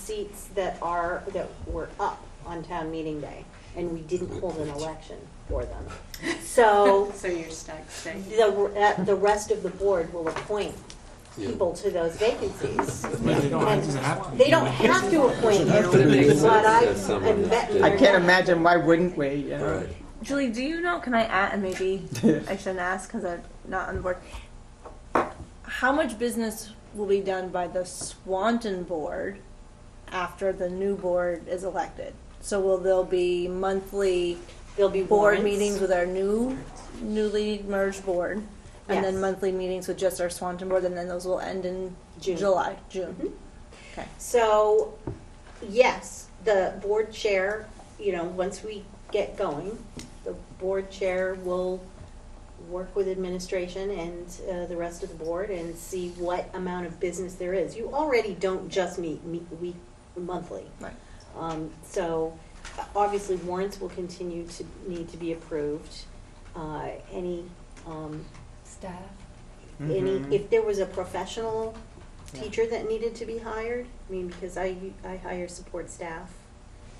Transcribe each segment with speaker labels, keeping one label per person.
Speaker 1: seats that are, that were up on town meeting day, and we didn't hold an election for them. So
Speaker 2: So you're stuck staying.
Speaker 1: the, that- the rest of the board will appoint people to those vacancies.
Speaker 3: But they don't have to have to.
Speaker 1: They don't have to appoint
Speaker 4: have to be.
Speaker 1: you, but I,
Speaker 4: That's someone
Speaker 1: I'm betting.
Speaker 4: that-
Speaker 5: I
Speaker 1: they're
Speaker 5: can't
Speaker 1: not.
Speaker 5: imagine why wouldn't we, you know?
Speaker 4: Right.
Speaker 6: Julie, do you know? Can I add? And maybe I shouldn't ask because I'm not on the board. How much business will be done by the Swanton board after the new board is elected? So will there be monthly
Speaker 1: There'll be
Speaker 6: board
Speaker 1: warrants.
Speaker 6: meetings with our new, newly merged board, and
Speaker 1: Yes.
Speaker 6: then monthly meetings with just our Swanton board, and then those will end in
Speaker 1: June.
Speaker 6: July, June. Okay.
Speaker 1: So, yes, the board chair, you know, once we get going, the board chair will work with administration and uh, the rest of the board and see what amount of business there is. You already don't just meet, meet week, monthly.
Speaker 6: Right.
Speaker 1: Um, so, uh, obviously warrants will continue to need to be approved. Uh, any, um,
Speaker 2: Staff.
Speaker 1: any,
Speaker 5: Mhm.
Speaker 1: if there was a professional teacher that needed to be hired, I mean, because I, I hire support staff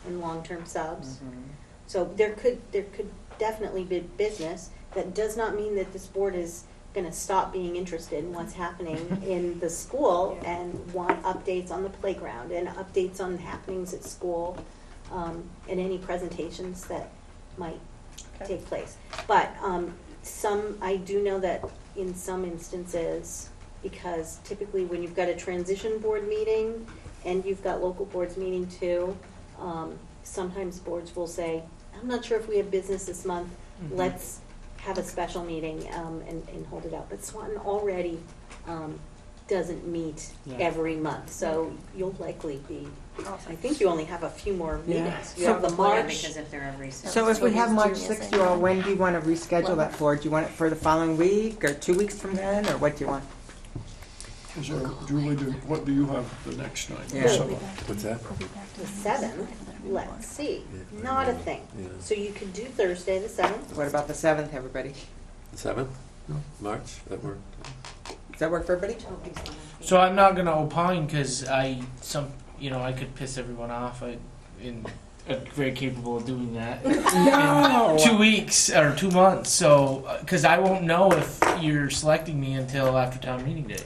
Speaker 1: and long-term subs.
Speaker 5: Mhm.
Speaker 1: So there could, there could definitely be business. That does not mean that this board is gonna stop being interested in what's happening in the school
Speaker 2: Yeah.
Speaker 1: and want updates on the playground and updates on happenings at school, um, and any presentations that might
Speaker 6: Okay.
Speaker 1: take place. But um, some, I do know that in some instances, because typically when you've got a transition board meeting and you've got local boards meeting too, um, sometimes boards will say, I'm not sure if we have business this month,
Speaker 5: Mhm.
Speaker 1: let's have a special meeting um, and, and hold it out. But Swanton already um, doesn't meet
Speaker 5: Yeah.
Speaker 1: every month, so you'll likely be, I
Speaker 6: Awesome.
Speaker 1: think you only have a few more
Speaker 5: Yeah.
Speaker 1: meetings. You
Speaker 5: So-
Speaker 1: have the
Speaker 2: Probably,
Speaker 1: March.
Speaker 2: Because if they're every six.
Speaker 5: So if we
Speaker 6: what
Speaker 5: have
Speaker 6: is
Speaker 5: March
Speaker 6: Julia
Speaker 5: 6th,
Speaker 6: saying?
Speaker 5: you all, when do you want to reschedule that
Speaker 6: Eleven.
Speaker 5: for? Do you want it for the following week or two weeks from then, or what do you want?
Speaker 7: So Julie, do- what do you have the next night?
Speaker 5: Yeah.
Speaker 7: So,
Speaker 4: What's that?
Speaker 1: The seventh, let's see,
Speaker 4: Yeah.
Speaker 1: not a thing.
Speaker 4: Yeah.
Speaker 1: So you could do Thursday, the seventh.
Speaker 5: What about the 7th, everybody?
Speaker 4: Seventh? March, that worked?
Speaker 5: Does that work for everybody?
Speaker 3: So I'm not gonna opine because I some you know I could piss everyone off. I in I'm very capable of doing that.
Speaker 5: No!
Speaker 3: In two weeks or two months. So because I won't know if you're selecting me until after town meeting day.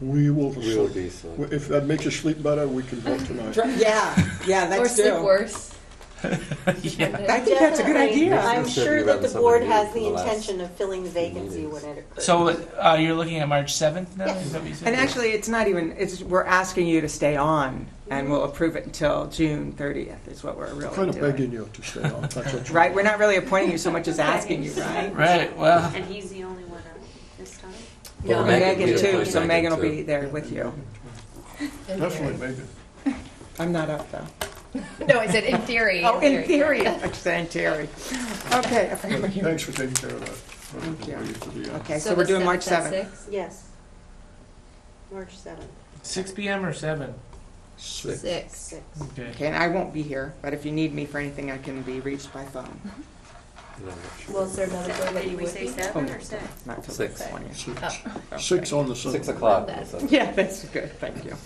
Speaker 7: We will,
Speaker 4: We will be so.
Speaker 7: if that makes you sleep better, we can vote tonight.
Speaker 5: Yeah, yeah, that's true.
Speaker 2: worse.
Speaker 3: yeah.
Speaker 5: I think that's a good
Speaker 1: Definitely.
Speaker 5: idea.
Speaker 1: I'm
Speaker 4: Let's say
Speaker 1: sure
Speaker 4: we
Speaker 1: that
Speaker 4: run
Speaker 1: the
Speaker 4: some
Speaker 1: board
Speaker 4: review
Speaker 1: has
Speaker 4: for
Speaker 1: the
Speaker 4: the last
Speaker 1: intention of filling the vacancy
Speaker 4: meetings.
Speaker 1: when it occurs.
Speaker 3: So uh, you're looking at March seventh now. Is that what you said?
Speaker 5: And actually, it's not even, it's, we're asking you to stay on, and we'll approve it until June 30th, is what we're really
Speaker 7: Kind of
Speaker 5: doing.
Speaker 7: begging you to stay on, that's what you're.
Speaker 5: Right, we're not really appointing you so much as asking you, right?
Speaker 3: right. Well.
Speaker 2: And he's the only one up this time?
Speaker 4: Well,
Speaker 5: And
Speaker 4: Megan
Speaker 5: Megan
Speaker 4: did
Speaker 5: too,
Speaker 4: appoint
Speaker 5: so Megan
Speaker 4: Megan,
Speaker 5: will be
Speaker 4: too.
Speaker 5: there with you.
Speaker 4: Mm-hmm.
Speaker 7: Definitely Megan.
Speaker 5: I'm not up, though.
Speaker 8: No, I said in theory.
Speaker 5: Oh, in theory, I'm saying Terry. Okay, I forgot what you-
Speaker 7: Thanks for taking care of that.
Speaker 5: Thank you.
Speaker 7: For the, uh,
Speaker 5: okay, so we're doing March 7th.
Speaker 1: Yes. March seventh,
Speaker 3: 6 p.m. or 7?
Speaker 4: Six.
Speaker 8: Six.
Speaker 1: six.
Speaker 3: Okay.
Speaker 5: Okay, and I won't be here, but if you need me for anything, I can be reached by phone.
Speaker 4: No, not sure.
Speaker 8: Was there another girl that you
Speaker 2: Did we
Speaker 8: would
Speaker 2: say
Speaker 8: be? Oh,
Speaker 2: seven or six?
Speaker 5: Not till
Speaker 4: Six.
Speaker 5: the 20th.
Speaker 7: Six,
Speaker 5: Oh, Okay.
Speaker 7: six on the seventh.
Speaker 4: Six o'clock. so-
Speaker 5: Yeah, that's good, thank you.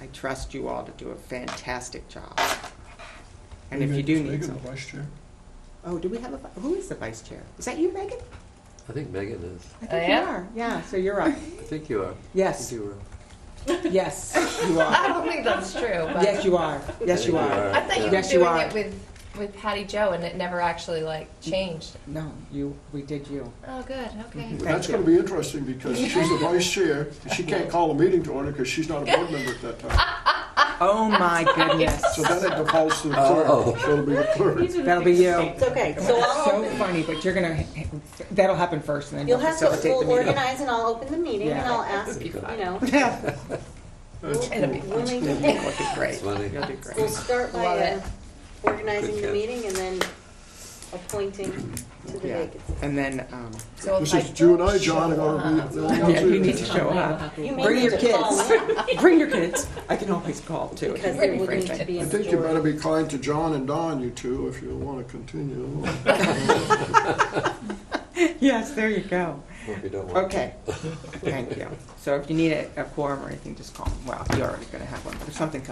Speaker 5: I trust you all to do a fantastic job. And if you do
Speaker 7: Megan-
Speaker 5: need
Speaker 7: Megan, the
Speaker 5: something.
Speaker 7: vice chair.
Speaker 5: Oh, do we have a, vi- who is the vice chair? Is that you, Megan?
Speaker 4: I think Megan is.
Speaker 5: I
Speaker 8: I
Speaker 5: think you
Speaker 8: am.
Speaker 5: are. Yeah, so you're up.
Speaker 4: I think you are. I think
Speaker 5: Yes,
Speaker 4: you
Speaker 5: yes, you
Speaker 8: I
Speaker 5: are.
Speaker 8: don't think that's true, but
Speaker 5: Yes, you are. Yes, you
Speaker 4: I think you
Speaker 5: are.
Speaker 4: are.
Speaker 8: I thought you were
Speaker 5: Yes, you
Speaker 8: doing
Speaker 5: are.
Speaker 8: it with, with Patty Joe and it never actually like changed.
Speaker 5: No, you, we did you.
Speaker 8: Oh, good, okay.
Speaker 7: Well, That's
Speaker 5: Thank
Speaker 7: gonna
Speaker 5: you.
Speaker 7: be interesting because she's the vice chair, and she can't call a meeting to order because she's not a board member at that time.
Speaker 5: Oh, my goodness.
Speaker 7: So then it defaults to the
Speaker 4: Oh.
Speaker 7: clerk, so it'll be the clerk.
Speaker 5: That'll be you.
Speaker 1: It's okay, so
Speaker 5: That's
Speaker 1: I'll
Speaker 5: so
Speaker 1: open,
Speaker 5: funny, but you're gonna, that'll happen first and then
Speaker 1: you'll
Speaker 5: you'll
Speaker 1: have to,
Speaker 5: facilitate the
Speaker 1: we'll
Speaker 5: meeting.
Speaker 1: organize and I'll open the meeting and
Speaker 5: Yeah.
Speaker 1: I'll ask, you know.
Speaker 5: Yeah.
Speaker 7: That's
Speaker 1: It'll be
Speaker 7: cool.
Speaker 1: We'll make it-
Speaker 5: You'll do great.
Speaker 4: It's funny.
Speaker 5: You'll do
Speaker 1: We'll
Speaker 5: great.
Speaker 1: start by
Speaker 8: Love
Speaker 1: uh,
Speaker 8: it.
Speaker 1: organizing
Speaker 4: Good
Speaker 1: the
Speaker 4: catch.
Speaker 1: meeting and then appointing to the
Speaker 5: Yeah.
Speaker 1: vacancy.
Speaker 5: And then, um,
Speaker 8: So if
Speaker 7: This
Speaker 8: I
Speaker 7: is June, I,
Speaker 8: don't
Speaker 7: John, I wanna be the only ones
Speaker 5: yeah, you
Speaker 7: here.
Speaker 5: need to show up.
Speaker 1: You may
Speaker 5: Bring
Speaker 1: need
Speaker 5: your
Speaker 1: to call
Speaker 5: kids.
Speaker 1: in
Speaker 5: Bring your kids. I can always call too. if
Speaker 1: Because
Speaker 5: you
Speaker 1: there
Speaker 5: need
Speaker 1: would
Speaker 5: me
Speaker 1: need to
Speaker 5: for anything.
Speaker 1: be a
Speaker 7: I
Speaker 1: majority.
Speaker 7: think you better be kind to John and Don, you two, if you want to continue.
Speaker 5: Yes, there you go.
Speaker 4: Hope you don't want
Speaker 5: Okay, thank you. So if you need a a quorum or anything, just call, well, you're already gonna have one, but if something comes